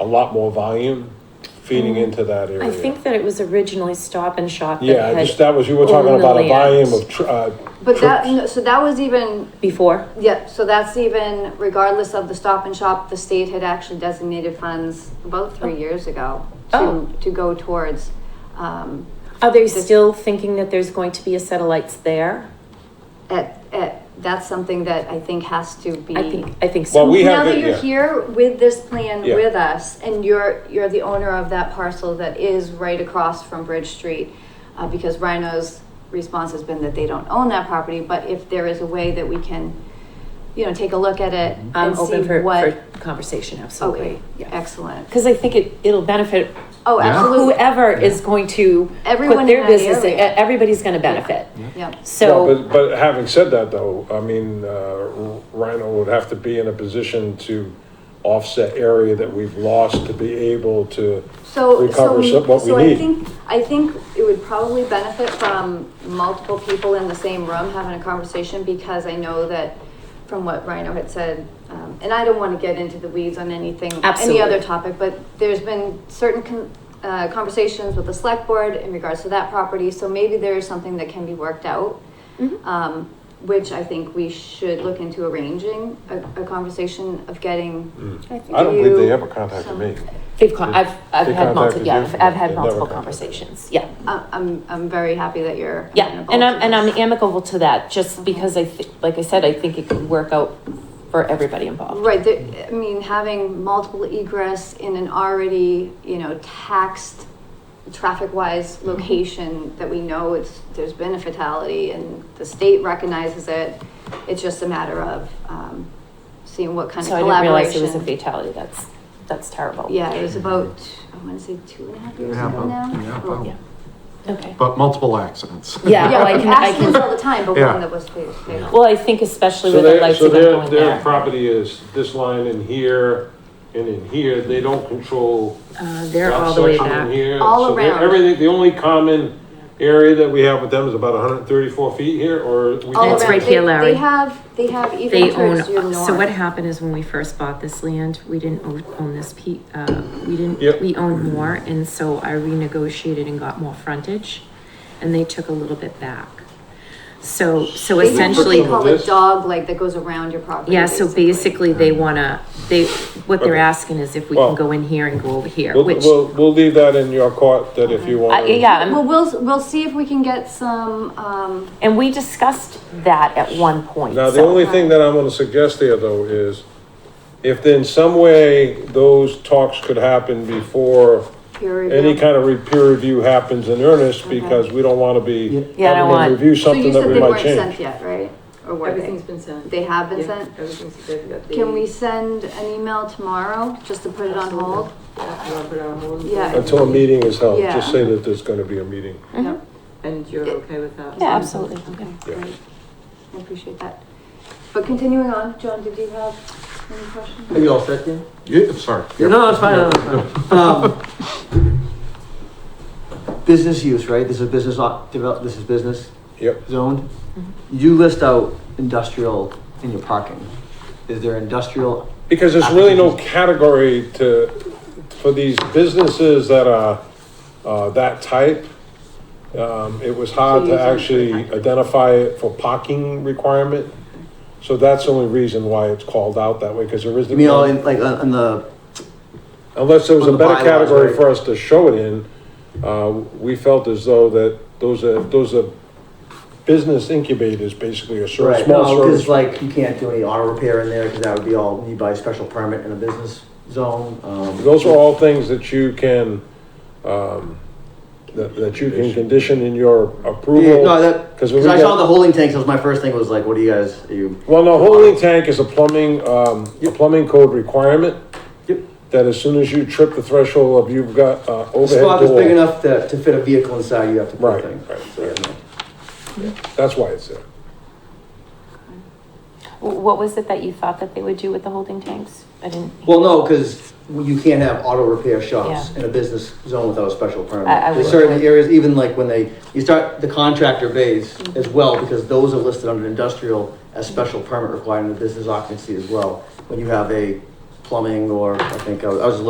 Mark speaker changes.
Speaker 1: a lot more volume
Speaker 2: Mm.
Speaker 1: feeding into that area.
Speaker 3: I think that it was originally Stop and Shop that
Speaker 1: Yeah, I
Speaker 3: had
Speaker 1: just, that was, you were talking
Speaker 3: owned the
Speaker 1: about a
Speaker 3: land
Speaker 1: volume of, tr- uh,
Speaker 2: But that,
Speaker 1: trips.
Speaker 2: no, so that was even,
Speaker 3: before.
Speaker 2: yeah, so that's even regardless of the stop and shop, the state had actually designated funds about three years ago
Speaker 3: Oh.
Speaker 2: to, to go towards, um,
Speaker 3: Are they still thinking that there's going to be a satellites there?
Speaker 2: at, at, that's something that I think has to be.
Speaker 3: I think I think so.
Speaker 1: Well, we
Speaker 2: Now
Speaker 1: have,
Speaker 2: that
Speaker 1: it,
Speaker 2: you're
Speaker 1: yeah,
Speaker 2: here with this plan
Speaker 1: Yeah.
Speaker 2: with us, and you're, you're the owner of that parcel that is right across from Bridge Street, uh, because Rhino's response has been that they don't own that property, but if there is a way that we can, you know, take a look at it
Speaker 3: I'm
Speaker 2: and see
Speaker 3: open for,
Speaker 2: what.
Speaker 3: for conversation, absolutely.
Speaker 2: Okay, excellent.
Speaker 3: Because I think it, it'll benefit
Speaker 2: Oh,
Speaker 4: Yeah.
Speaker 2: absolutely,
Speaker 3: whoever is going to
Speaker 2: Everyone
Speaker 3: put
Speaker 2: in
Speaker 3: their
Speaker 2: that
Speaker 3: business, in.
Speaker 2: area.
Speaker 3: everybody's going to benefit.
Speaker 2: yeah.
Speaker 3: So,
Speaker 1: Well, but, but having said that though, I mean, uh, Rhino would have to be in a position to offset area that we've lost to be able to
Speaker 2: So,
Speaker 1: recover
Speaker 2: so,
Speaker 1: some- what we
Speaker 2: so I
Speaker 1: need.
Speaker 2: think, I think it would probably benefit from multiple people in the same room having a conversation because I know that from what Rhino had said, um, and I don't want to get into the weeds on anything, any
Speaker 3: Absolutely.
Speaker 2: other topic, but there's been certain con- uh, conversations with the select board in regards to that property, so maybe there is something that can be worked out. Um, which I think we should look into arranging a, a conversation of getting.
Speaker 1: Mm. I don't believe they
Speaker 2: you
Speaker 1: ever contacted
Speaker 2: some-
Speaker 1: me.
Speaker 3: they've con- I've, I've
Speaker 1: They
Speaker 3: had multiple,
Speaker 1: contacted
Speaker 3: yeah,
Speaker 1: you
Speaker 3: I've,
Speaker 1: for
Speaker 3: I've
Speaker 1: that.
Speaker 3: had
Speaker 1: They never
Speaker 3: multiple
Speaker 1: contacted you.
Speaker 3: conversations. Yeah.
Speaker 2: I- I'm, I'm very happy that you're.
Speaker 3: Yeah,
Speaker 2: amenable
Speaker 3: and
Speaker 2: to
Speaker 3: I'm, and I'm
Speaker 2: this.
Speaker 3: amicable to that, just because I, thi- like I said, I think it could work out for everybody involved.
Speaker 2: Right, there, I mean, having multiple egress in an already, you know, taxed, traffic-wise
Speaker 3: Mm-hmm.
Speaker 2: location that we know it's, there's been a fatality and the state recognizes it. It's just a matter of, um, seeing what kind of
Speaker 3: So I didn't realize it was a
Speaker 2: collaboration.
Speaker 3: fatality, that's, that's terrible.
Speaker 2: Yeah, it was about, I wanna say two and a half years
Speaker 4: Yeah,
Speaker 2: ago
Speaker 4: about-
Speaker 2: now.
Speaker 4: yeah,
Speaker 2: Or-
Speaker 4: about-
Speaker 3: Yeah. Okay.
Speaker 4: But multiple accidents.
Speaker 3: Yeah,
Speaker 2: Yeah,
Speaker 3: well, I
Speaker 2: like
Speaker 3: can, I can,
Speaker 2: accidents all the time, but
Speaker 4: Yeah.
Speaker 2: one that was fatal.
Speaker 3: well, I think especially
Speaker 1: So
Speaker 3: with the
Speaker 1: their,
Speaker 3: lights
Speaker 1: so
Speaker 3: that
Speaker 1: their,
Speaker 3: are going
Speaker 1: their
Speaker 3: there.
Speaker 1: property is this line in here and in here, they don't control
Speaker 3: Uh, they're
Speaker 1: that
Speaker 3: all the way
Speaker 1: section in
Speaker 3: back.
Speaker 1: here.
Speaker 2: All
Speaker 1: So they're-
Speaker 2: around.
Speaker 1: Everything, the only common area that we have with them is about hundred and thirty-four feet here, or? we
Speaker 2: All
Speaker 1: don't-
Speaker 3: That's
Speaker 2: around.
Speaker 3: right
Speaker 2: They-
Speaker 3: here, Larry.
Speaker 2: They have, they have even
Speaker 5: They
Speaker 2: towards your
Speaker 5: own,
Speaker 2: north.
Speaker 5: so what happened is when we first bought this land, we didn't o- own this pe, uh, we
Speaker 1: Yep.
Speaker 5: didn't, we owned more, and so I renegotiated and got more frontage, and they took a little bit back. So, so
Speaker 2: They have what
Speaker 5: essentially,
Speaker 2: they call a
Speaker 1: This-
Speaker 2: dog leg that goes around your property.
Speaker 5: yeah, so basically they wanna, they, what they're
Speaker 1: Okay.
Speaker 5: asking is if we can
Speaker 1: Well-
Speaker 5: go in here and go over here,
Speaker 1: We'll,
Speaker 5: which,
Speaker 1: we'll, we'll leave that in your court, that if you
Speaker 3: Uh,
Speaker 1: want. to-
Speaker 5: Um,
Speaker 3: yeah, I'm-
Speaker 2: Well, we'll, we'll see if we can get some, um,
Speaker 3: and we discussed that at one point,
Speaker 1: Now, the
Speaker 3: so-
Speaker 1: only thing that I'm gonna suggest there, though, is if in some way those talks could happen before
Speaker 2: peer
Speaker 1: any
Speaker 2: review.
Speaker 1: kind of re- peer review happens in earnest, because we don't wanna be
Speaker 3: Yeah, I don't
Speaker 1: having
Speaker 3: want-
Speaker 1: to review
Speaker 2: So
Speaker 1: something
Speaker 2: you said
Speaker 1: that
Speaker 2: they
Speaker 1: we might
Speaker 2: weren't
Speaker 1: change.
Speaker 2: sent yet, right? Or were
Speaker 6: Everything's
Speaker 2: they?
Speaker 6: been sent.
Speaker 2: They have been
Speaker 6: Yeah,
Speaker 2: sent?
Speaker 6: Everything's, they've got the.
Speaker 2: Can we send an email tomorrow just to put it on hold?
Speaker 6: Yeah, you wanna put it on hold?
Speaker 2: Yeah.
Speaker 1: Until a meeting is held,
Speaker 2: Yeah.
Speaker 1: just say that there's gonna be a meeting.
Speaker 2: Yep.
Speaker 6: And you're okay with that?
Speaker 3: Yeah, absolutely.
Speaker 2: Okay,
Speaker 1: Yeah.
Speaker 2: great. I appreciate that. But continuing on, John, did you have any questions?
Speaker 7: Are you all set then?
Speaker 4: Yeah, sorry.
Speaker 7: No, no, it's fine, no, no, it's fine. Um, Business use, right? This is business, op- develop, this is business
Speaker 1: Yep,
Speaker 7: zoned. You list out industrial in your parking. Is there industrial,
Speaker 1: because there's really no category to, for these businesses that are, uh, that type. Um, it was hard to actually identify it for parking requirement. So that's the only reason why it's called out that way, because there
Speaker 7: you mean all
Speaker 1: isn't,
Speaker 7: in, like, on on the,
Speaker 1: unless there was a
Speaker 7: on the
Speaker 1: better
Speaker 7: bylaws,
Speaker 1: category
Speaker 7: right?
Speaker 1: for us to show it in. Uh, we felt as though that those are, those are business incubators, basically, or sort of
Speaker 7: right,
Speaker 1: small
Speaker 7: no,
Speaker 1: service.
Speaker 7: because like, you can't do any auto repair in there, because that would be all, need by special permit in a business zone. Um,
Speaker 1: Those are all things that you can, um, that, that you can condition in your
Speaker 7: Yeah, No,
Speaker 1: approval.
Speaker 7: that,
Speaker 1: 'Cause
Speaker 7: because
Speaker 1: we
Speaker 7: I saw
Speaker 1: got-
Speaker 7: the holding tanks, that was my first thing, was like, what do you guys, are you?
Speaker 1: Well, no, holding tank is a plumbing, um, a plumbing code requirement.
Speaker 7: Yep.
Speaker 1: That as soon as you trip the threshold of you've got, uh,
Speaker 7: The
Speaker 1: overhead
Speaker 7: spot is big
Speaker 1: door.
Speaker 7: enough to, to fit a vehicle inside, you have to put
Speaker 1: Right,
Speaker 7: a thing.
Speaker 1: right, right. That's why it's there.
Speaker 3: W- What was it that you thought that they would do with the holding tanks? I didn't.
Speaker 7: Well, no, because you can't have auto repair shops
Speaker 3: Yeah.
Speaker 7: in a business zone without a special permit.
Speaker 3: I- I
Speaker 7: There's
Speaker 3: would-
Speaker 7: certain areas, even like when they, you start the contractor base
Speaker 3: Mm-hmm.
Speaker 7: as well, because those are listed under industrial as special permit required in the business occupancy as well. When you have a plumbing or, I think, I was I was